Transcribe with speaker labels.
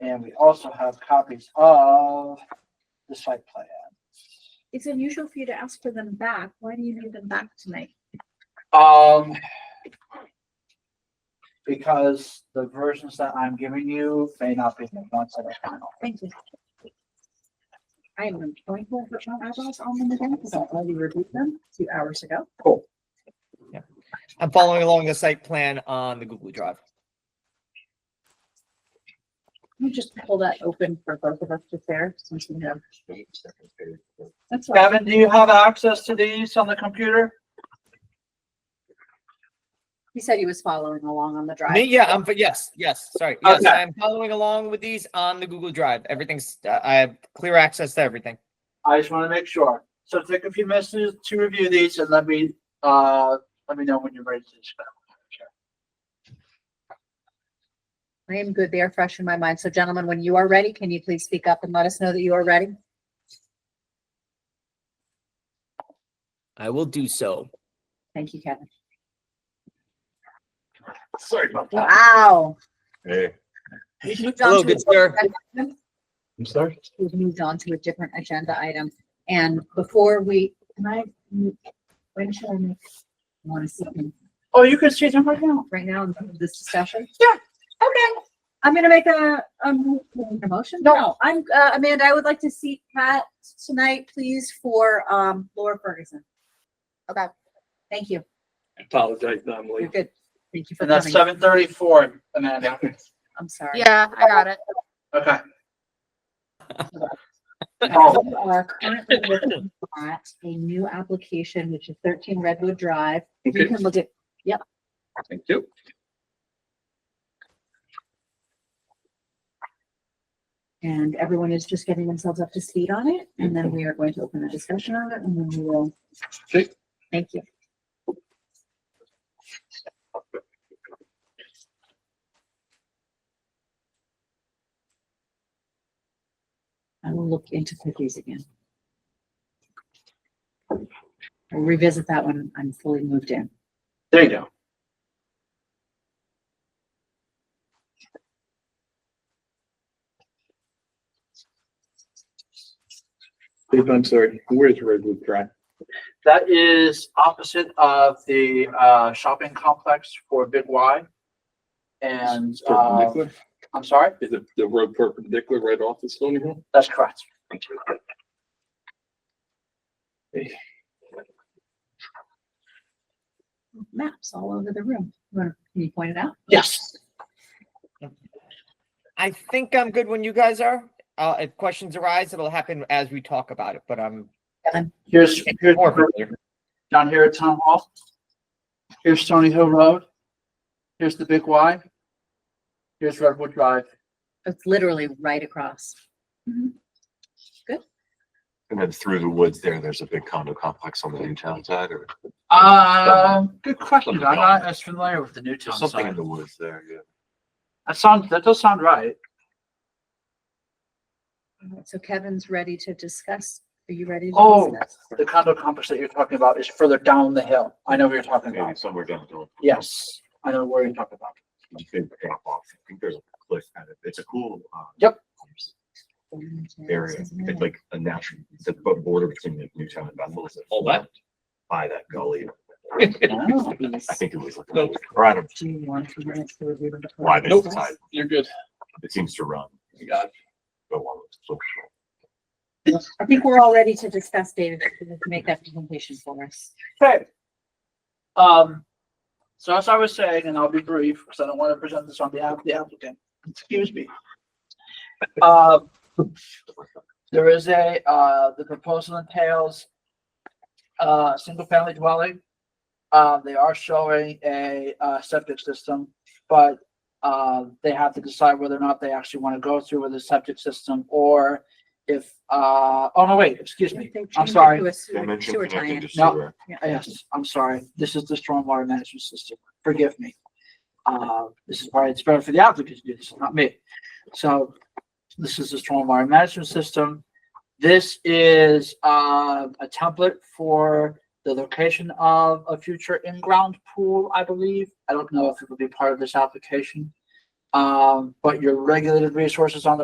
Speaker 1: And we also have copies of the site plan.
Speaker 2: It's unusual for you to ask for them back. Why do you need them back tonight?
Speaker 1: Um, because the versions that I'm giving you may not be the ones that are final.
Speaker 2: Thank you. I am going to put my eyeballs on them again because I already reviewed them two hours ago.
Speaker 3: I'm following along the site plan on the Google Drive.
Speaker 2: Let me just pull that open for both of us to share since we have. That's all.
Speaker 1: Gavin, do you have access to these on the computer?
Speaker 2: He said he was following along on the
Speaker 3: Me,
Speaker 2: drive.
Speaker 3: yeah, I'm, but yes, yes, sorry. Yes,
Speaker 1: Okay.
Speaker 3: I'm following along with these on the Google Drive. Everything's, I have clear access to everything.
Speaker 1: I just want to make sure. So take a few minutes to to review these and let me, uh, let me know when you're ready to discuss.
Speaker 2: I am good. They are fresh in my mind. So gentlemen, when you are ready, can you please speak up and let us know that you are ready?
Speaker 3: I will do so.
Speaker 2: Thank you, Kevin.
Speaker 1: Sorry about
Speaker 2: Wow.
Speaker 4: Hey.
Speaker 2: We've moved on
Speaker 3: Hello,
Speaker 2: to
Speaker 3: good
Speaker 2: a-
Speaker 3: sir.
Speaker 4: I'm sorry?
Speaker 2: we've moved on to a different agenda item. And before we, can I, when shall I make? I Want to see them
Speaker 1: Oh, you can see them right now.
Speaker 2: right now in this discussion?
Speaker 1: Yeah,
Speaker 2: okay. I'm gonna make a, um, a motion?
Speaker 1: No.
Speaker 2: I'm, uh, Amanda, I would like to see Pat tonight, please, for, um, Laura Ferguson. Okay, thank you.
Speaker 5: Apologize, I'm
Speaker 2: You're
Speaker 5: late.
Speaker 2: good. Thank you for
Speaker 1: And that's
Speaker 2: coming.
Speaker 1: seven thirty-four, Amanda.
Speaker 2: I'm sorry.
Speaker 6: Yeah, I got it.
Speaker 1: Okay. Oh,
Speaker 2: We are currently looking at a new application, which is thirteen Redwood Drive. You
Speaker 5: Okay.
Speaker 2: can look at
Speaker 5: Thank you.
Speaker 2: And everyone is just getting themselves up to speed on it, and then we are going to open the discussion on it, and then we will.
Speaker 5: Okay.
Speaker 2: Thank you. I will look into cookies again. We'll revisit that when I'm fully moved in.
Speaker 1: There you go.
Speaker 4: Dave, I'm sorry. Where's Redwood Drive?
Speaker 1: That is opposite of the uh shopping complex for Big Y. And uh,
Speaker 4: Perpendicular?
Speaker 1: I'm sorry,
Speaker 4: Is it the road perpendicular right off the Stony Hill?
Speaker 1: that's correct.
Speaker 2: Maps all over the room. You wanna- Can you point it out?
Speaker 1: Yes.
Speaker 3: I think I'm good when you guys are. Uh, if questions arise, it'll happen as we talk about it, but I'm
Speaker 1: Here's here's
Speaker 3: more familiar.
Speaker 1: down here at Town Hall. Here's Stony Hill Road. Here's the Big Y. Here's Redwood Drive.
Speaker 2: It's literally right across.
Speaker 4: And then through the woods there, there's a big condo complex on the Newtown side or
Speaker 1: Um, good question. I'm not as familiar with the new town
Speaker 4: something in
Speaker 1: side.
Speaker 4: the woods there, yeah.
Speaker 1: That sounds, that does sound right.
Speaker 2: Alright, So Kevin's ready to discuss. Are you ready? to
Speaker 1: Oh.
Speaker 2: discuss?
Speaker 1: The condo complex that you're talking about is further down the hill. I know what you're talking
Speaker 4: Maybe
Speaker 1: about.
Speaker 4: somewhere down the road.
Speaker 1: Yes, I know where you're talking about.
Speaker 4: You could drop off. I think there's a cliff at it. It's a cool, uh,
Speaker 1: Yep.
Speaker 4: area. It's like a natural, it's a border between Newtown and Bethel. It's
Speaker 5: Oh, that-
Speaker 4: By that gully.
Speaker 1: Oh.
Speaker 4: I think it was like,
Speaker 5: No.
Speaker 4: or I don't,
Speaker 2: Do you want to minutes to review the
Speaker 4: why there's a
Speaker 5: Nope.
Speaker 4: tide.
Speaker 5: You're good.
Speaker 4: It seems to run,
Speaker 5: You got it.
Speaker 4: go along with the social.
Speaker 2: I think we're all ready to discuss, David, if you can make that presentation for us.
Speaker 1: Okay. Um, so as I was saying, and I'll be brief, because I don't want to present this on behalf of the applicant, excuse me. Um, there is a, uh, the proposal entails uh, single-family dwelling. Uh, they are showing a, uh, septic system, but, uh, they have to decide whether or not they actually want to go through with a septic system or if, uh, oh, no, wait, excuse me. I'm sorry.
Speaker 4: They mentioned
Speaker 2: Sewer
Speaker 4: connecting
Speaker 2: tie-in.
Speaker 4: to
Speaker 1: No.
Speaker 4: sewer.
Speaker 1: Yes, I'm sorry. This is the stormwater management system. Forgive me. Uh, this is why it's better for the applicant to do this, not me. So this is the stormwater management system. This is, uh, a template for the location of a future in-ground pool, I believe. I don't know if it would be part of this application. Um, but your regulated resources on the